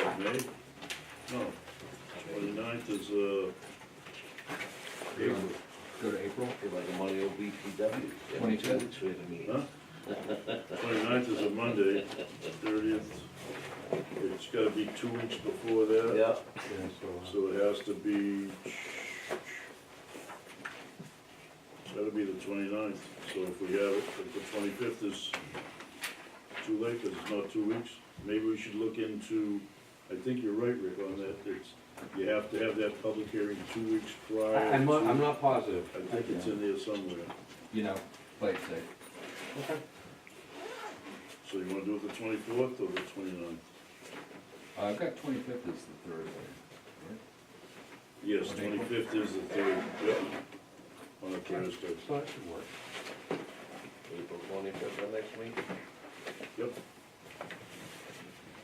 right? No, twenty-ninth is, uh, April, Go to April, Feel like I'm on the old BPW. Every 22? two weeks we have a meeting. huh? Twenty-ninth is a Monday, thirtieth, it's gotta be two weeks before that. Yeah, uh, So it has to be, that'll be the 29th. so if we have it, if the twenty-fifth is too late, because it's not two weeks, maybe we should look into, I think you're right, Rick, on that, it's, you have to have that public hearing two weeks prior. I- I'm not, to- I'm not positive. I think it's in there somewhere, you know, play it safe. so you wanna do it the twenty-fourth or the 29th? Uh, I've got twenty-fifth is the third one. Yes, On April? twenty-fifth is the third, yep, on a Thursday, So that should work. April twenty-fifth, the next week. yep,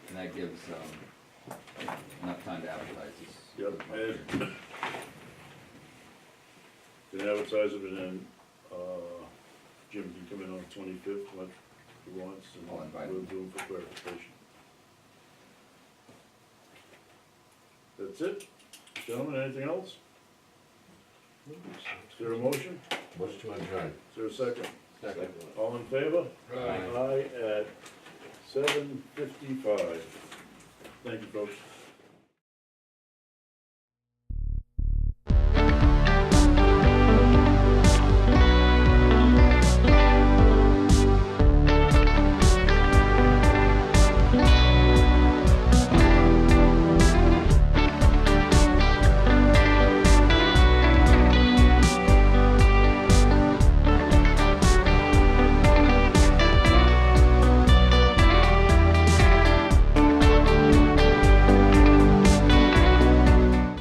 And that gives, um, enough time to advertise this. yep, and Can advertise it, and then, uh, Jim can come in on the twenty-fifth, what he wants, and Oh, I'll invite him. we'll do him for clarification. That's it, gentlemen, anything else? Is there a motion? Motion to adjourn. Is there a second? Second. All in favor? Aye. Aye at seven fifty-five. Thank you, folks.